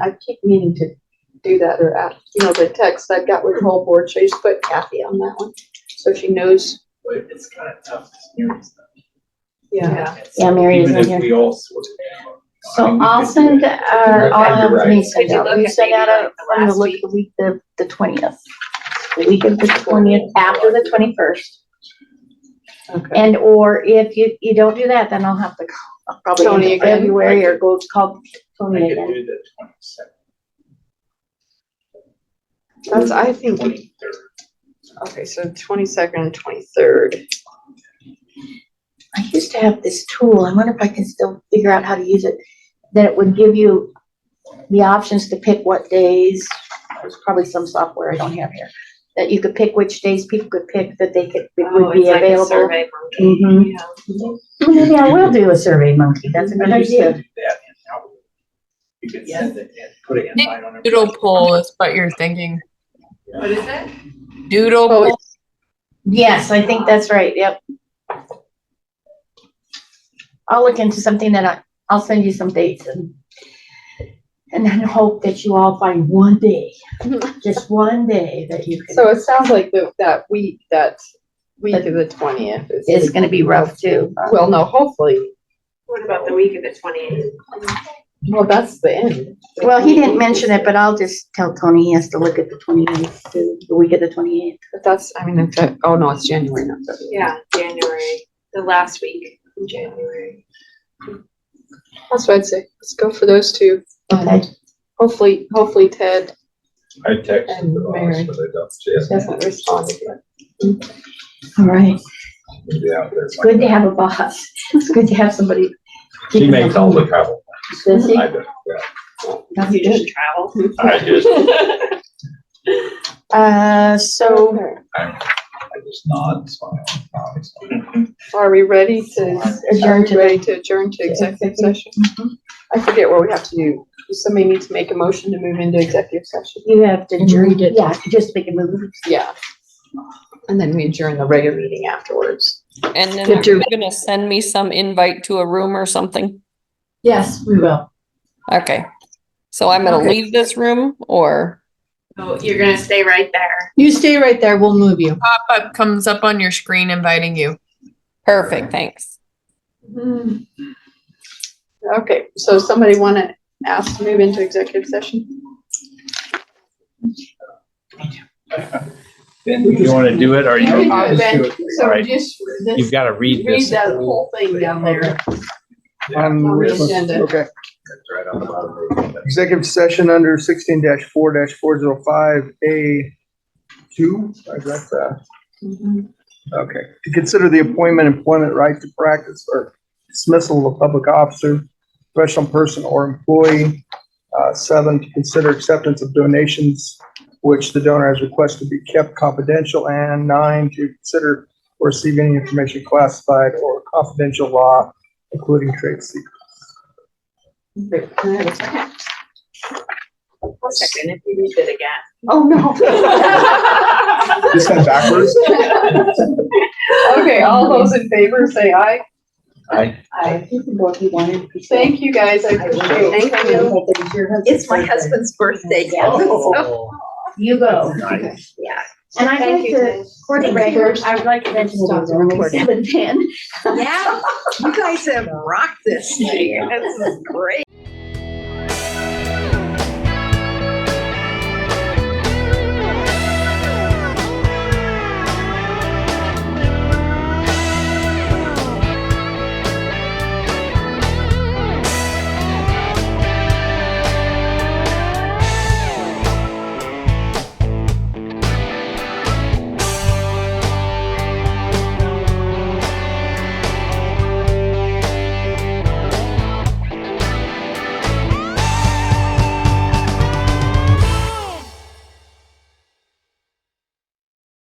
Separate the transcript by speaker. Speaker 1: I keep meaning to do that or ask, you know, the text I got with the whole board, so I just put Kathy on that one. So she knows,
Speaker 2: but it's kind of tough. to hear stuff.
Speaker 1: yeah,
Speaker 2: It's-
Speaker 3: Yeah, Mary
Speaker 2: even
Speaker 3: isn't
Speaker 2: if
Speaker 3: here.
Speaker 2: We all sort of. I
Speaker 3: So
Speaker 2: mean, we
Speaker 3: I'll
Speaker 2: could do
Speaker 3: send,
Speaker 2: it.
Speaker 3: uh, all
Speaker 2: You're
Speaker 3: of
Speaker 2: right.
Speaker 3: me send
Speaker 4: Could you
Speaker 3: out,
Speaker 4: look
Speaker 3: we
Speaker 4: at
Speaker 3: send
Speaker 4: maybe
Speaker 3: out a,
Speaker 4: like the
Speaker 3: from the
Speaker 4: last
Speaker 3: look,
Speaker 4: week?
Speaker 3: the week, the, the twentieth. The week of the twentieth, after the twenty-first,
Speaker 1: okay.
Speaker 3: and or if you, you don't do that, then I'll have to call I'll
Speaker 1: Tony
Speaker 3: probably in
Speaker 1: again.
Speaker 3: February or go call
Speaker 2: I
Speaker 3: Tony
Speaker 2: could
Speaker 3: again.
Speaker 2: do the twenty-second,
Speaker 1: That's, I think,
Speaker 2: twenty-third.
Speaker 1: okay, so twenty-second and twenty-third.
Speaker 3: I used to have this tool, I wonder if I can still figure out how to use it, that it would give you the options to pick what days, there's probably some software I don't have here, that you could pick which days people could pick that they could,
Speaker 5: Oh,
Speaker 3: would be available. Mhm. Well, Maybe I will do a survey monkey, that's a good idea.
Speaker 2: You can
Speaker 1: Yeah.
Speaker 2: send it and put it in.
Speaker 6: Nick,
Speaker 2: line on every-
Speaker 6: Doodle poll is what you're thinking.
Speaker 4: What is it?
Speaker 6: Doodle
Speaker 1: Oh,
Speaker 6: poll,
Speaker 3: Yes, I think that's right, yep. I'll look into something that I, I'll send you some dates and, and then hope that you all find one day, just one day that you can.
Speaker 1: So it sounds like the, that week, that week of the twentieth
Speaker 3: It's
Speaker 1: is,
Speaker 3: gonna be rough too.
Speaker 1: well, no, hopefully,
Speaker 4: What about the week of the twenty-eighth?
Speaker 1: well, that's the end.
Speaker 3: Well, he didn't mention it, but I'll just tell Tony he has to look at the twenty-eighth, the week of the twenty-eighth.
Speaker 1: But that's, I mean, in fact, oh, no, it's January, not February.
Speaker 4: Yeah, January, the last week in January.
Speaker 1: That's what I'd say, let's go for those two. Um,
Speaker 3: Okay.
Speaker 1: Hopefully, hopefully Ted
Speaker 7: I texted
Speaker 1: And
Speaker 7: the
Speaker 1: Mary.
Speaker 7: boss, but I don't see it.
Speaker 1: doesn't respond again.
Speaker 3: All right.
Speaker 7: Maybe out there.
Speaker 3: It's good to have a boss. It's good to have somebody.
Speaker 7: She makes all the travel.
Speaker 3: Does he?
Speaker 7: I don't, yeah.
Speaker 3: No,
Speaker 4: You just travel.
Speaker 7: I just,
Speaker 3: Uh, so
Speaker 7: I'm, I just nod, smile, nod, smile.
Speaker 1: Are we ready to, are
Speaker 3: adjourn
Speaker 1: we
Speaker 3: to
Speaker 1: ready to adjourn to executive session? I forget what we have to do. Does somebody need to make a motion to move into executive session?
Speaker 3: You have to read it. Yeah, just make a move.
Speaker 1: Yeah. And then we adjourn the regular meeting afterwards.
Speaker 5: And then
Speaker 1: Good
Speaker 5: are you gonna send me some invite to a room or something?
Speaker 3: Yes, we will.
Speaker 5: Okay. So I'm gonna
Speaker 1: Okay.
Speaker 5: leave this room or,
Speaker 4: So you're gonna stay right there.
Speaker 1: You stay right there, we'll move you.
Speaker 6: pop-up comes up on your screen inviting you.
Speaker 5: perfect, thanks.
Speaker 1: Okay, so somebody wanna ask to move into executive session?
Speaker 7: Then if you wanna do it, or
Speaker 1: You can
Speaker 7: you,
Speaker 1: do it, Ben. So
Speaker 7: Right.
Speaker 1: just,
Speaker 7: you've
Speaker 1: this,
Speaker 7: gotta read
Speaker 1: read
Speaker 7: this.
Speaker 1: that whole thing down there. On the agenda.
Speaker 8: Okay,
Speaker 7: It's right on the bottom. of it.
Speaker 8: executive session under sixteen four four zero five A two, I got that.
Speaker 4: Mm-hmm.
Speaker 8: Okay, to consider the appointment, employment, right to practice, or dismissal of a public officer, professional person or employee. Uh, seven, to consider acceptance of donations which the donor has requested be kept confidential, and nine, to consider or receive any information classified or confidential law, including trade secrets.
Speaker 1: Great, can I have a second?
Speaker 4: One second, if you read it again.
Speaker 1: Oh, no.
Speaker 8: This went backwards?
Speaker 1: Okay, all those in favor, say aye.
Speaker 7: Aye.
Speaker 1: Aye.
Speaker 3: You can go if you wanted.
Speaker 1: Thank you, guys, I appreciate it.
Speaker 4: Thank you.
Speaker 3: It's
Speaker 4: birthday.
Speaker 8: Oh.
Speaker 3: You go.
Speaker 4: Yeah.
Speaker 3: And I'd
Speaker 1: Thank
Speaker 3: like
Speaker 1: you,
Speaker 3: to,
Speaker 1: guys.
Speaker 3: for the
Speaker 1: Thank
Speaker 3: record,
Speaker 1: you.
Speaker 3: I would like to mention
Speaker 1: Stop
Speaker 3: that
Speaker 1: the
Speaker 3: we're
Speaker 1: recording.
Speaker 3: seven ten.
Speaker 9: Yeah, you guys have rocked this thing. This is great.